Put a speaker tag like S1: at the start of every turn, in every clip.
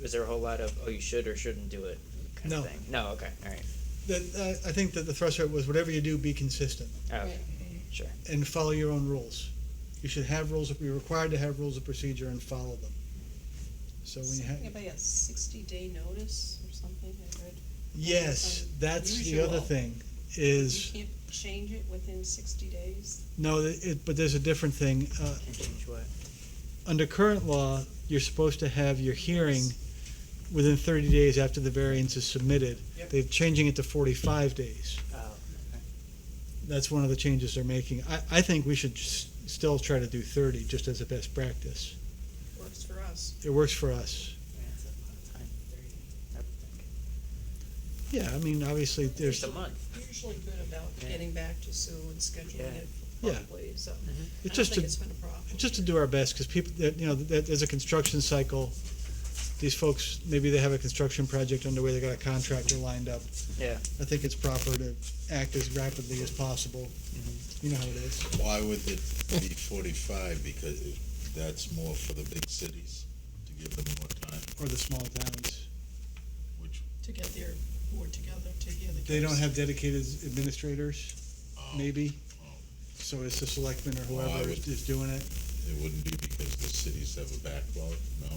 S1: was there a whole lot of oh you should or shouldn't do it kind
S2: No.
S1: of thing? No. Okay. All right.
S2: That, uh, I, I think that the threshold was whatever you do, be consistent
S1: Oh, okay.
S3: Right.
S1: Sure.
S2: and follow your own rules. You should have rules, of- you're required to have rules of procedure and follow them. So when you have,
S3: Anybody got sixty day notice or something, I read,
S2: yes, that's the other
S3: Usual.
S2: thing, is,
S3: you can't change it within sixty days?
S2: no, it, but there's a different thing. Uh,
S1: Can change what?
S2: under current law, you're supposed to have your hearing within thirty days after the variance is submitted.
S1: Yep.
S2: They're changing it to forty-five days.
S1: Oh.
S2: That's one of the changes they're making. I, I think we should s- still try to do thirty, just as a best practice.
S3: Works for us.
S2: It works for us.
S1: That's a lot of time. Thirty. I would think.
S2: Yeah, I mean, obviously,
S1: There's
S2: there's,
S1: a month.
S3: Usually good about
S1: Yeah.
S3: getting back to Sue and
S1: Yeah.
S3: scheduling it
S2: Yeah.
S3: properly, so I
S2: it's
S3: don't
S2: just
S3: think
S2: to,
S3: it's been a problem.
S2: just to do our best, because people, that, you know, that, there's a construction cycle. These folks, maybe they have a construction project underway, they got a contractor lined up.
S1: Yeah.
S2: I think it's proper to act as rapidly as possible. You know how it is.
S4: Why would it be forty-five? Because that's more for the big cities, to give them more time,
S2: or the small towns.
S4: which,
S3: To get their board together to hear the.
S2: They don't have dedicated administrators,
S3: Oh.
S4: um,
S2: maybe. So it's the selectmen or
S4: Well, I
S2: whoever
S4: would-
S2: is doing it.
S4: it wouldn't be because the cities have a backlog, no?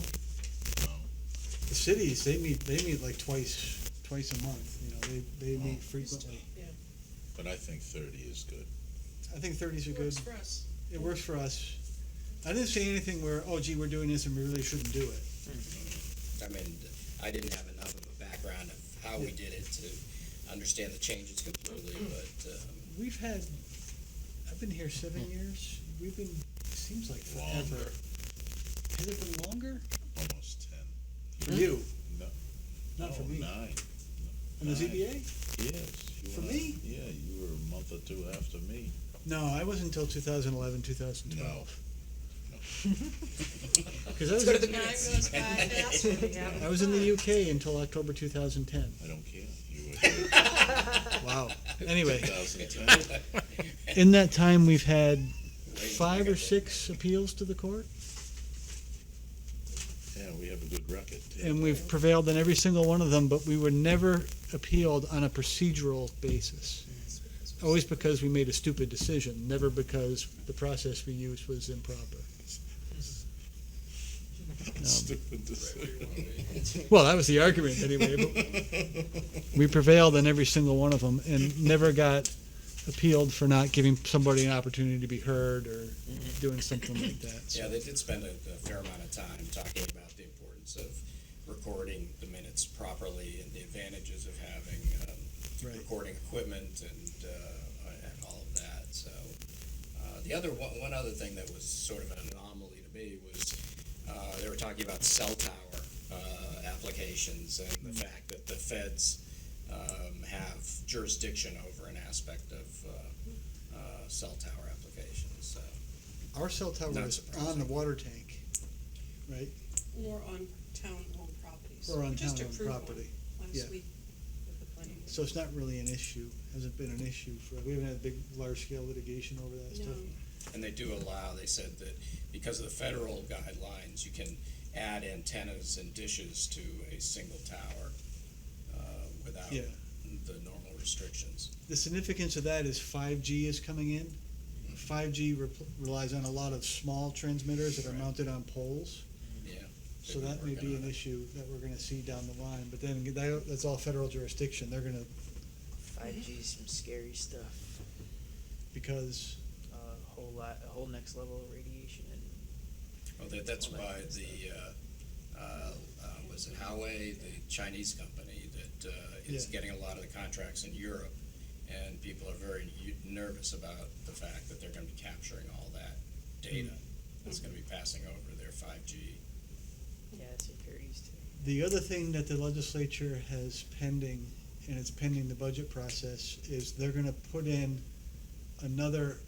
S4: No,
S2: The cities, they meet, they meet like twice, twice a month, you know, they,
S3: Oh,
S2: they meet frequently.
S4: but I think thirty is good.
S2: I think thirties are good.
S3: Works for us.
S2: It works for us. I didn't see anything where, oh gee, we're doing this and we really shouldn't do it.
S5: I mean, I didn't have enough of a background of how we did it to understand the changes completely, but, um,
S2: We've had, I've been here seven years. We've been, seems like forever.
S4: Longer,
S2: Has it been longer?
S4: almost
S2: For
S4: ten.
S2: you,
S4: No,
S2: not for
S4: no,
S2: me.
S4: Nine,
S2: On the
S4: nine.
S2: ZBA?
S4: yes. you
S2: For
S4: were-
S2: me?
S4: Yeah, you were a month or two after me.
S2: No, I wasn't until 2011, 2012. Because I was
S3: Time goes by fast when you have
S2: I was in the UK until October 2010.
S4: I don't care. You were here
S2: Wow. Anyway,
S4: two thousand ten.
S2: in that time, we've had
S5: Wait,
S2: five
S5: I
S2: or
S5: got-
S2: six appeals to the court,
S4: Yeah, we have a good record. yeah.
S2: and we've prevailed in every single one of them, but we were never appealed on a procedural basis. Always because we made a stupid decision, never because the process we used was improper.
S4: Stupid decision.
S2: Well, that was the argument anyway. But we prevailed in every single one of them and never got appealed for not giving somebody an opportunity to be heard or doing something like that. So,
S5: yeah, they did spend a, a fair amount of time talking about the importance of recording the minutes properly and the advantages of having, um,
S2: Right.
S5: recording equipment and, uh, and all of that, so. Uh, the other, one, one other thing that was sort of an anomaly to me was, uh, they were talking about cell tower, uh, applications and the fact that the feds, um, have jurisdiction over an aspect of, uh, uh, cell tower applications, so.
S2: Our cell tower
S5: Not
S2: is on
S5: surprising.
S2: the water tank, right?
S3: Or on town-owned properties.
S2: Or on
S3: Just
S2: town
S3: approve one
S2: property.
S3: once
S2: yeah.
S3: we- with the planning board.
S2: So it's not really an issue, hasn't been an issue for, we haven't had big, large-scale litigation over that stuff.
S3: No.
S5: And they do allow, they said that because of the federal guidelines, you can add antennas and dishes to a single tower uh, without
S2: Yeah,
S5: the normal restrictions.
S2: the significance of that is five G is coming in. Five G relies on a lot of small transmitters that are
S5: Right.
S2: mounted on poles.
S5: Yeah.
S2: So
S5: They've
S2: that may
S5: been working
S2: be
S5: on
S2: an
S5: it.
S2: issue that we're gonna see down the line, but then that, that's all federal jurisdiction, they're gonna,
S1: Five G, some scary stuff.
S2: because,
S1: A whole lot, a whole next level of radiation and
S5: Well, that, that's why the, uh, uh, uh, was it Huawei, the Chinese company that uh, is
S2: Yeah.
S5: getting a lot of the contracts in Europe? And people are very u- nervous about the fact that they're gonna be capturing all that data
S2: Mm.
S5: that's gonna be passing over their five G.
S1: yeah, it's impurities too.
S2: The other thing that the legislature has pending, and it's pending the budget process, is they're gonna put in another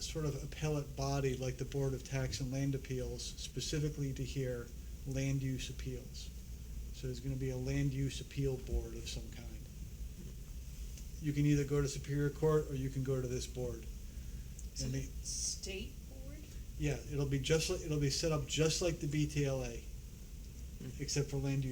S2: sort of appellate body like the Board of Tax and Land Appeals specifically to hear land use appeals. So there's gonna be a land use appeal board of some kind. You can either go to Superior Court or you can go to this board.
S3: Is
S2: And
S3: it
S2: they-
S3: State board?
S2: yeah, it'll be just, like it'll be set up just like the BTLA, except for land use